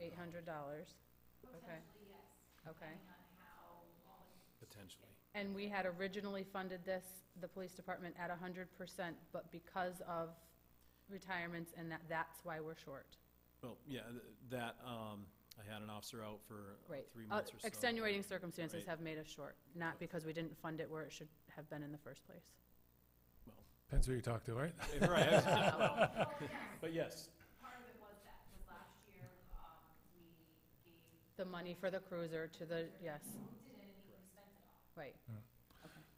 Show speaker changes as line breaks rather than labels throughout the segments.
Eight hundred dollars, okay,
Potentially, yes,
okay.
depending on how long it
potentially.
And we had originally funded this, the police department, at hundred percent, but because of retirements and that, that's why we're short.
Well, yeah, th- that, um, I had an officer out for uh,
Right.
three
Uh,
months or so.
Extenuating circumstances
Right.
have made us short, not because we didn't fund it where it should have been in the first place.
Depends who you talk to, right?
Eh, right, I was-
Well, yes,
But yes,
part of it was that, because last year, um, we gave,
The money for the cruiser to the, yes,
we did anything, we spent it all.
right.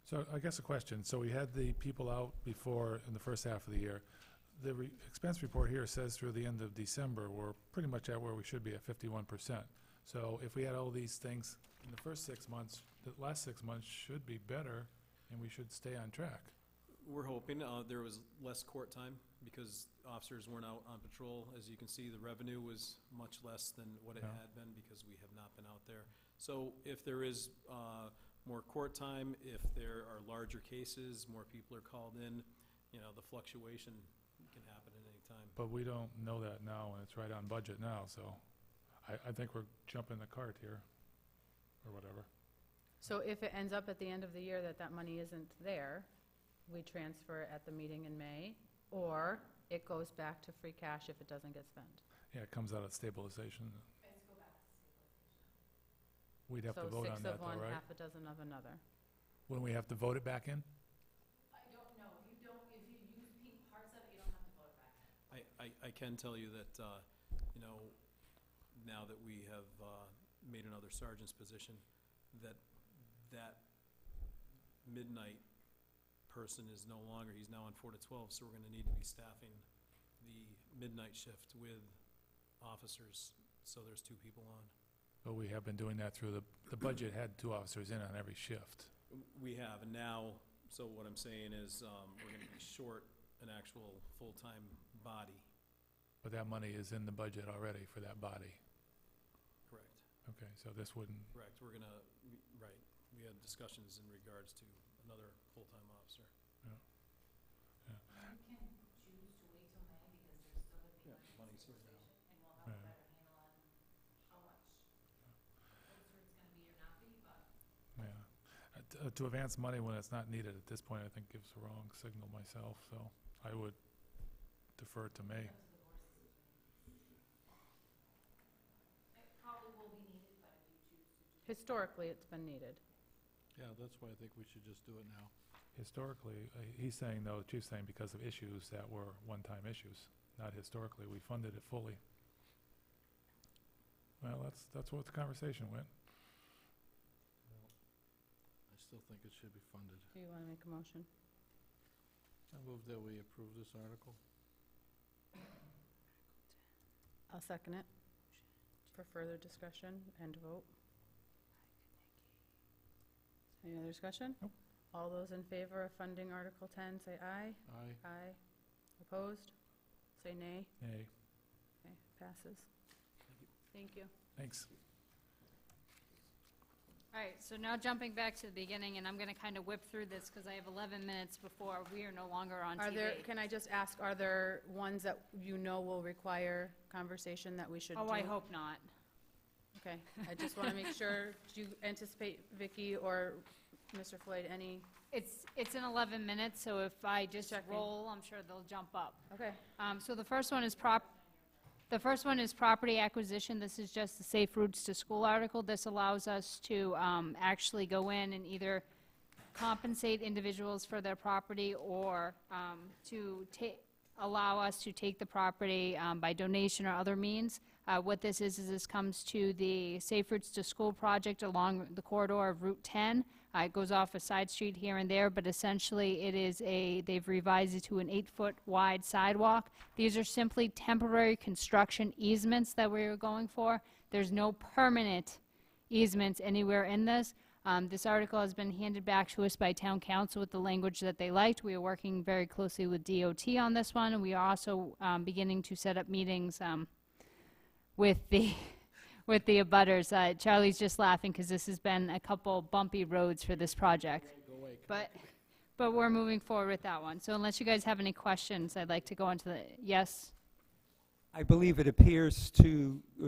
So I guess a question, so we had the people out before, in the first half of the year. The re- expense report here says through the end of December, we're pretty much at where we should be at fifty-one percent. So if we had all these things in the first six months, the last six months should be better, and we should stay on track.
we're hoping, uh, there was less court time because officers weren't out on patrol. As you can see, the revenue was much less than what it
Yeah.
had been because we have not been out there. So if there is, uh, more court time, if there are larger cases, more people are called in, you know, the fluctuation can happen at any time.
But we don't know that now, and it's right on budget now, so I, I think we're jumping the cart here, or whatever.
So if it ends up at the end of the year that that money isn't there, we transfer it at the meeting in May, or it goes back to free cash if it doesn't get spent.
Yeah, it comes out of stabilization.
Let's go back to stabilization.
We'd have to vote on
So six
that
of
though,
one,
right?
half a dozen of another.
When we have to vote it back in?
I don't know, if you don't, if you use pink parts of it, you don't have to vote it back in.
I, I, I can tell you that, uh, you know, now that we have, uh, made another sergeant's position, that, that midnight person is no longer, he's now on four to twelve, so we're gonna need to be staffing the midnight shift with officers, so there's two people on.
But we have been doing that through the, the budget had two officers in on every shift.
We have, and now, so what I'm saying is, um, we're gonna be short an actual full-time body,
But that money is in the budget already for that body.
correct?
Okay, so this wouldn't,
Correct, we're gonna, we- right, we had discussions in regards to another full-time officer.
You can choose to wait till May, because there's still gonna be
Yeah,
money in
money's here now.
stabilization, and we'll have a
Yeah.
better handle on how much closer it's gonna be or not be, but
yeah. Uh, t- uh, To advance money when it's not needed at this point, I think gives the wrong signal myself, so I would defer to May.
Up to the board's decision. It probably will be needed, but if you choose to do.
Historically, it's been needed.
Yeah, that's why I think we should just do it now.
Historically, uh, he's saying, though, the chief's saying because of issues that were one-time issues, not historically, we funded it fully. Well, that's, that's what the conversation went.
I still think it should be funded.
Do you want to make a motion?
I move that we approve this article.
I'll second it. For further discussion and vote. Any other discussion?
Nope.
All those in favor of funding Article 10, say aye.
Aye.
Aye. Opposed? Say nay.
Hey,
Okay, passes. Thank you.
thanks.
All right, so now jumping back to the beginning, and I'm going to kind of whip through this because I have 11 minutes before we are no longer on
Are there,
TV.
can I just ask, are there ones that you know will require conversation that we should do?
Oh, I hope not.
Okay, I just want to make sure, do you anticipate, Vicky or Mr. Floyd, any?
It's, it's in 11 minutes, so if I just
Checking.
roll, I'm sure they'll jump up.
Okay.
Um, So the first one is prop, the first one is property acquisition. This is just the Safe Routes to School article. This allows us to um, actually go in and either compensate individuals for their property or um, to ta- allow us to take the property um, by donation or other means. Uh, What this is, is this comes to the Safe Routes to School project along the corridor of Route 10. Uh, It goes off a side street here and there, but essentially it is a, they've revised it to an eight-foot wide sidewalk. These are simply temporary construction easements that we were going for. There's no permanent easements anywhere in this. Um, This article has been handed back to us by town council with the language that they liked. We are working very closely with DOT on this one, and we are also um, beginning to set up meetings um, with the, with the abutters. Uh, Charlie's just laughing because this has been a couple bumpy roads for this project. But, but we're moving forward with that one. So unless you guys have any questions, I'd like to go into the, yes?
I believe it appears to